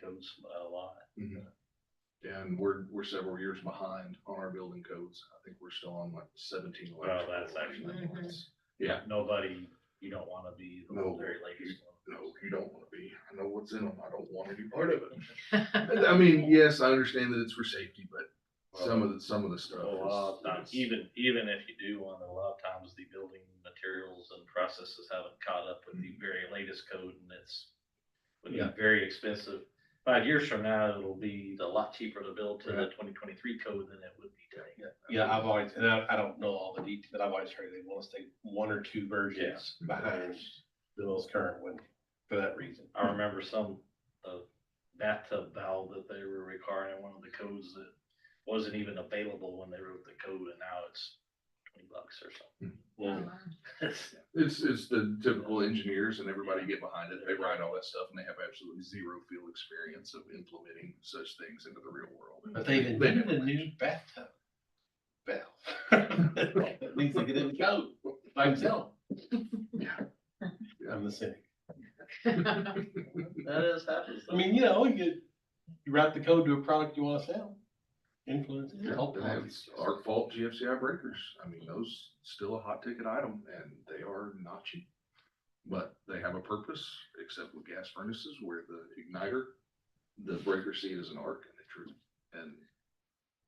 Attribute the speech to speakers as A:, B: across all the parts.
A: buildings by a lot.
B: And we're, we're several years behind on our building codes. I think we're still on like seventeen.
A: Well,
B: electrical
A: that's
B: or
A: actually-
B: something.
C: Mhm.
B: It's- Yeah,
A: Nobody, you don't wanna be the
B: No.
A: very latest one.
B: no, you don't wanna be. I know what's in them. I don't want any part of it. I mean, yes, I understand that it's for safety, but some of the, some of the
A: So
B: stuff.
A: A lot of times,
B: is- is-
A: even, even if you do one, a lot of times the building materials and processes haven't caught up with the very latest code and it's. Would be
B: Mm. Yeah.
A: very expensive. Five years from now, it'll be a lot cheaper to build to the twenty twenty-three code than it would be today.
D: Yeah, I've always, and I, I don't know all the details, but I've always heard they want to stay one or two versions behind the most current one for that reason.
A: I remember some, uh, bathtub valve that they were requiring in one of the codes that wasn't even available when they wrote the code and now it's twenty bucks or
D: Yeah.
A: something.
B: It's, it's the typical engineers and everybody get behind it. They write all that stuff and they have absolutely zero field experience of implementing such things into the real world.
D: But they invented a new bathtub valve. At least they get in the code by himself.
B: Yeah.
D: I'm the cynic.
A: That is happens.
D: I mean, you know, you, you write the code to a product you want to sell, influence. it,
B: Yeah,
D: help
B: and it's Our fault GFCI breakers. I mean, those still a hot ticket item and they are not cheap. But they have a purpose, except with gas furnaces where the igniter, the breaker seat is an arc and it true. And,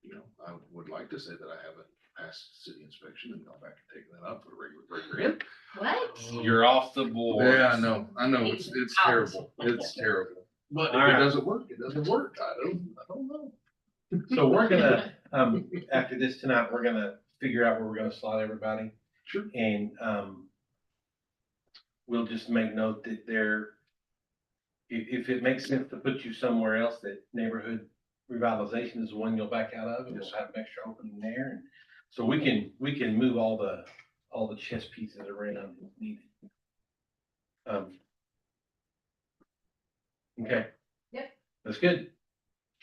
B: you know, I would like to say that I haven't passed city inspection and gone back and taken that up for a regular breaker in.
C: What?
D: You're off the board.
B: Yeah, I know, I know. It's, it's
C: Out.
B: terrible. It's terrible. But if it
D: Alright.
B: doesn't work, it doesn't work. I don't, I don't know.
D: So we're gonna, um, after this tonight, we're gonna figure out where we're gonna slot everybody.
B: Sure.
D: And, um, we'll just make note that there, if, if it makes sense to put you somewhere else, that neighborhood revitalization is the one you'll back out of, and we'll
B: Yes.
D: have an extra opening there. And So we can, we can move all the, all the chess pieces around if needed. Um. Okay.
C: Yep.
D: That's good.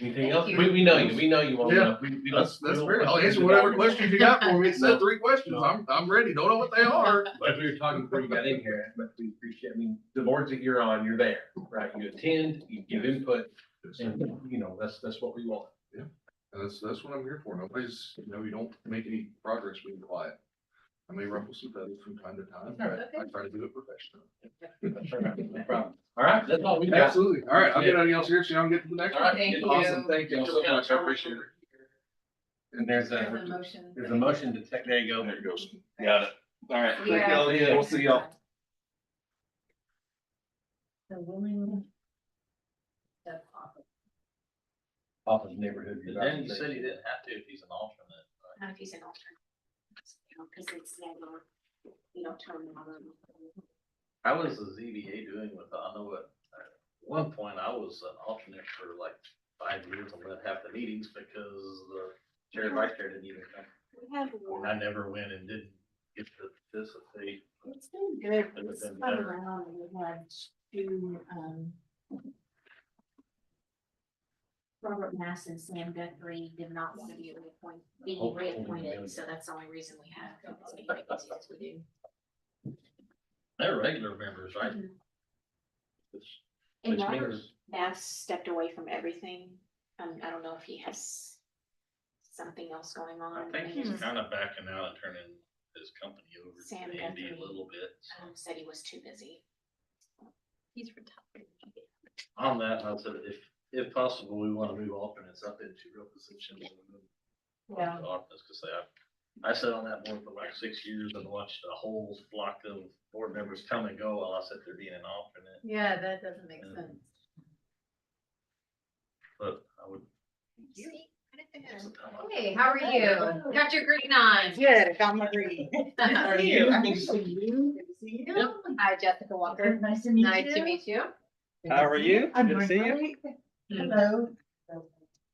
D: Anything
C: Thank
D: else?
C: you.
D: We, we know you, we know you want to
B: Yeah.
D: know.
B: We, we
D: That's-
B: that's, that's
D: we
B: fair.
D: don't-
B: I'll answer
D: we
B: whatever
D: don't-
B: questions you got for me. It's
D: No.
B: said three questions.
D: No.
B: I'm, I'm ready. Don't know what they are.
D: But we were talking before you got in here, but we appreciate, I mean, the boards that you're on, you're there, right? You attend, you give input, and, you know, that's, that's what we want.
B: And That's, that's what I'm here for. Nobody's, you know, you don't make any progress being quiet. I may ruffle some feathers from time to time, but I try to do it professionally.
D: That's all right, no problem. All right, that's all we got.
B: Absolutely. All right. I'll get on y'all's here, so y'all can get to the next
D: All
B: one.
D: right,
C: Thank you.
D: awesome, thank you so much, I appreciate it. And there's
C: There's a
D: a,
C: motion.
D: there's a motion to take, there you go.
B: There it goes.
D: Got it. All right.
C: We are-
D: We'll see y'all.
C: The willing. the offer.
D: Off of neighborhood.
A: Then you said he didn't have to if he's an alternate. right?
E: Not if he's an alternate. Because it's never, you don't turn them on.
A: How is the ZBA doing with, I know at at one point I was an alternate for like five years and led half the meetings because the chair and vice chair didn't even come.
E: We have
A: And
E: one.
A: I never went and didn't get to participate.
E: It's been good.
A: It would've
E: This
A: been
E: time
A: better.
E: around, we had two, um, Robert Mass and Sam Guthrie did not want to be reappointed, being
D: Hopefully,
E: reappointed,
D: really.
E: so that's the only reason we have. as many vacancies as we do.
A: They're regular members, right?
E: Mhm.
A: Which-
E: And
A: which
E: Robert
A: means-
E: Mass stepped away from everything. Um, I don't know if he has something else going
A: I
E: on.
A: think
E: and
A: he's
E: he's-
A: kind of backing out and turning his company over to
E: Sam
A: Andy a
E: Guthrie.
A: little bit. so.
E: um, said he was too busy. He's retired.
A: On that, I said, if, if possible, we want to move alternates up into real positions. and move
C: Yeah.
A: Alternates, because I, I sat on that board for like six years and watched a whole flock of board members come and go while I sat there being an alternate.
C: Yeah, that doesn't make sense.
A: But I would, sometime I-
C: Hey, how are you? Got your green on?
F: Good, got my green. How are you? I'm good to see you. Good to see you.
C: Hi, Jessica Walker.
F: Nice to
C: Nice to meet you.
G: How are you?
F: I'm
G: Good to see
F: doing
G: you.
F: great. Hello.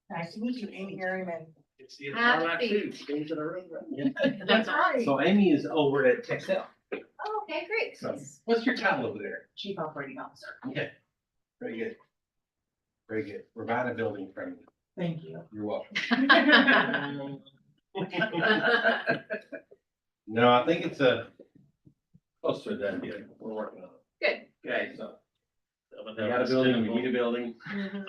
F: Nice to meet you, Amy Harriman.
C: Have a seat.
F: That's right.
D: So Amy is over at Texel.
C: Oh, Okay, great.
D: What's your title over there?
F: Chief Operating Officer.
D: Okay. Very good. Very good. Provide a building permit.
F: Thank you.
D: You're welcome.
C: That's
D: No, I think it's a closer than, yeah, we're working on it.
C: Good.
D: Okay, so
A: I would
D: we
A: have
D: got a
A: this
D: building, we
A: tenable-
F: Mm-hmm.
D: need a building.